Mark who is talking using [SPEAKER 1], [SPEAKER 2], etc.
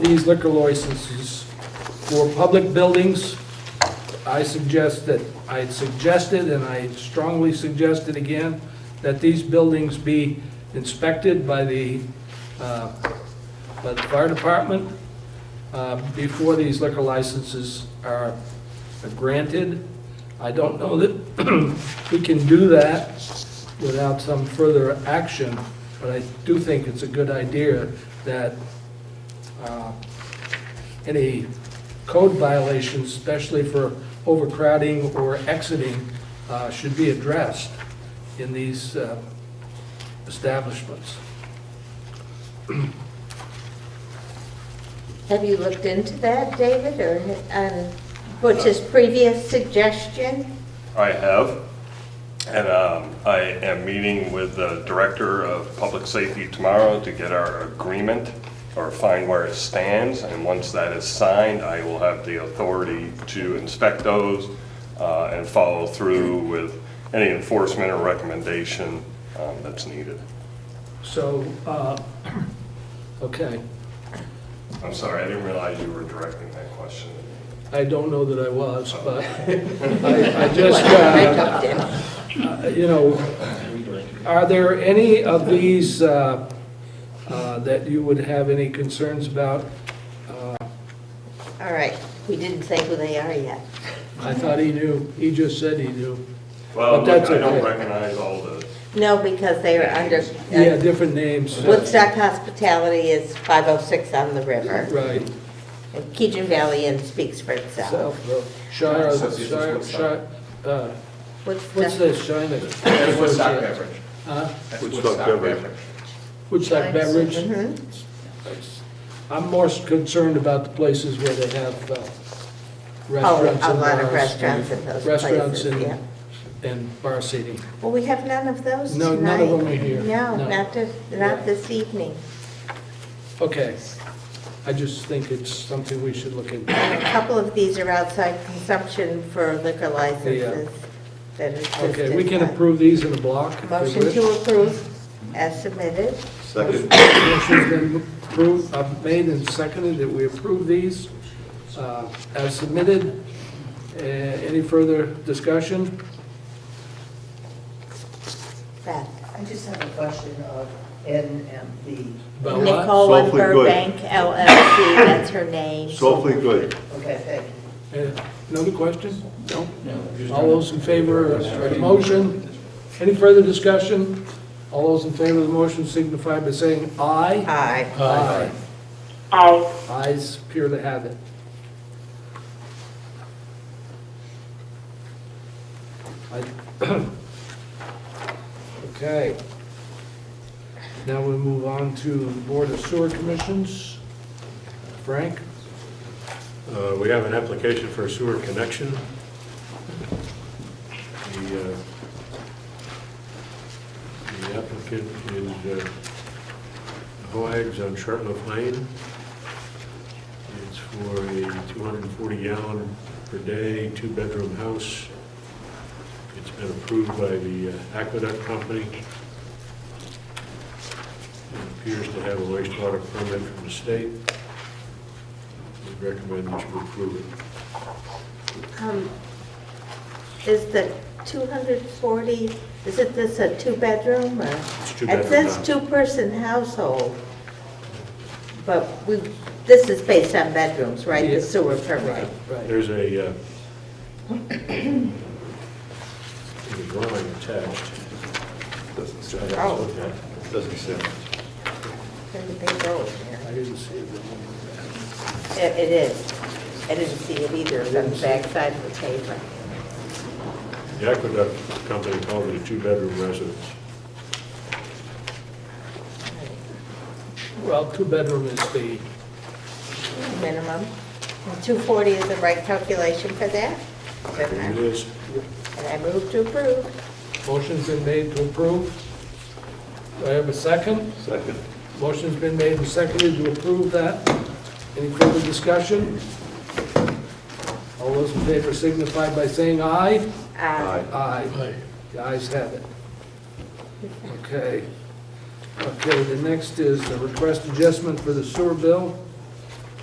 [SPEAKER 1] these liquor licenses for public buildings, I suggest that, I had suggested, and I strongly suggested again, that these buildings be inspected by the, uh, by the fire department uh, before these liquor licenses are granted. I don't know that we can do that without some further action, but I do think it's a good idea that uh, any code violations, especially for overcrowding or exiting, uh, should be addressed in these uh, establishments.
[SPEAKER 2] Have you looked into that, David, or um, Butch's previous suggestion?
[SPEAKER 3] I have, and um, I am meeting with the Director of Public Safety tomorrow to get our agreement or find where it stands, and once that is signed, I will have the authority to inspect those uh, and follow through with any enforcement or recommendation um, that's needed.
[SPEAKER 1] So, uh, okay,
[SPEAKER 3] I'm sorry, I didn't realize you were directing that question.
[SPEAKER 1] I don't know that I was, but I I just, uh,
[SPEAKER 2] I talked to him.
[SPEAKER 1] you know, are there any of these uh, uh, that you would have any concerns about?
[SPEAKER 2] All right, we didn't say who they are yet.
[SPEAKER 1] I thought he knew, he just said he knew. But
[SPEAKER 3] Well, look,
[SPEAKER 1] that's
[SPEAKER 3] I don't
[SPEAKER 1] okay.
[SPEAKER 3] recognize all the,
[SPEAKER 2] No, because they are under,
[SPEAKER 1] Yeah,
[SPEAKER 2] uh,
[SPEAKER 1] different names.
[SPEAKER 2] Woodstock Hospitality is 506 on the river.
[SPEAKER 1] Right,
[SPEAKER 2] And Keegan Valley Inn speaks for itself.
[SPEAKER 1] South, uh, Shire,
[SPEAKER 4] So this is
[SPEAKER 1] Shire,
[SPEAKER 4] Woodstock.
[SPEAKER 1] Shire, uh, what's
[SPEAKER 2] Woodstock,
[SPEAKER 1] this, Shiner?
[SPEAKER 4] That's Woodstock beverage.
[SPEAKER 1] Huh?
[SPEAKER 4] That's
[SPEAKER 5] Woodstock
[SPEAKER 4] Woodstock
[SPEAKER 5] beverage.
[SPEAKER 4] beverage.
[SPEAKER 1] Woodstock Beverage?
[SPEAKER 2] Mhm.
[SPEAKER 1] I'm more concerned about the places where they have uh,
[SPEAKER 2] oh,
[SPEAKER 1] restaurants
[SPEAKER 2] a
[SPEAKER 1] and
[SPEAKER 2] lot of
[SPEAKER 1] bars.
[SPEAKER 2] restaurants in those
[SPEAKER 1] Restaurants
[SPEAKER 2] places, yeah.
[SPEAKER 1] and, and bar seating.
[SPEAKER 2] Well, we have none of those
[SPEAKER 1] No,
[SPEAKER 2] tonight.
[SPEAKER 1] none of them are here.
[SPEAKER 2] No,
[SPEAKER 1] No.
[SPEAKER 2] not this,
[SPEAKER 1] Yeah.
[SPEAKER 2] not this evening.
[SPEAKER 1] Okay. I just think it's something we should look into.
[SPEAKER 2] And a couple of these are outside consumption for liquor licenses that are
[SPEAKER 1] Okay, we can
[SPEAKER 2] listed.
[SPEAKER 1] approve these in a block. if we
[SPEAKER 2] Motion
[SPEAKER 1] wish.
[SPEAKER 2] to approve as submitted.
[SPEAKER 5] Second.
[SPEAKER 1] Motion's been approved, uh, made and seconded that we approve these uh, as submitted. Uh, Any further discussion?
[SPEAKER 2] Beth.
[SPEAKER 6] I just have a question of NMB.
[SPEAKER 1] About what?
[SPEAKER 2] Nicole and
[SPEAKER 5] Softly good.
[SPEAKER 2] Burbank LLC, that's her name.
[SPEAKER 5] Softly good.
[SPEAKER 6] Okay, thank you.
[SPEAKER 1] Uh, Another question? No? All those in favor of the motion? Any further discussion? All those in favor of the motion signify by saying aye.
[SPEAKER 2] Hi.
[SPEAKER 1] Aye.
[SPEAKER 7] Aye.
[SPEAKER 1] Ayes appear to have it. I- Okay. Now we move on to the Board of Sewer Commissions. Frank?
[SPEAKER 8] Uh, We have an application for a sewer connection. The uh, the applicant is uh, Hoags on Chartliff Lane. It's for a 240 gallon per day, two-bedroom house. It's been approved by the uh, Aqueduct Company. It appears to have a wastewater permit from the state. We recommend that you approve it.
[SPEAKER 2] Um, Is the 240, is it this a two-bedroom or?
[SPEAKER 8] two-bedroom
[SPEAKER 2] It says
[SPEAKER 8] house.
[SPEAKER 2] two-person household, but we, this is based on bedrooms, right?
[SPEAKER 1] Yeah.
[SPEAKER 2] The sewer permit.
[SPEAKER 1] Right.
[SPEAKER 8] There's a, uh, there's a drawing attached.
[SPEAKER 5] Doesn't sound.
[SPEAKER 2] Oh.
[SPEAKER 5] Doesn't sound.
[SPEAKER 2] Where did they go in there?
[SPEAKER 1] I didn't see it.
[SPEAKER 2] It it is. I didn't see it either, it's on the backside of the paper.
[SPEAKER 8] The Aqueduct Company called it a two-bedroom residence.
[SPEAKER 1] Well, two-bedroom is the,
[SPEAKER 2] minimum. And 240 is the right calculation for that?
[SPEAKER 8] Here it
[SPEAKER 2] And
[SPEAKER 8] is.
[SPEAKER 2] I move to approve.
[SPEAKER 1] motion's been made to approve. Do I have a second?
[SPEAKER 5] Second.
[SPEAKER 1] Motion's been made and seconded to approve that. Any further discussion? All those in favor signify by saying aye.
[SPEAKER 2] Uh,
[SPEAKER 1] Aye. The ayes have it. Okay. Okay, the next is the request adjustment for the sewer bill.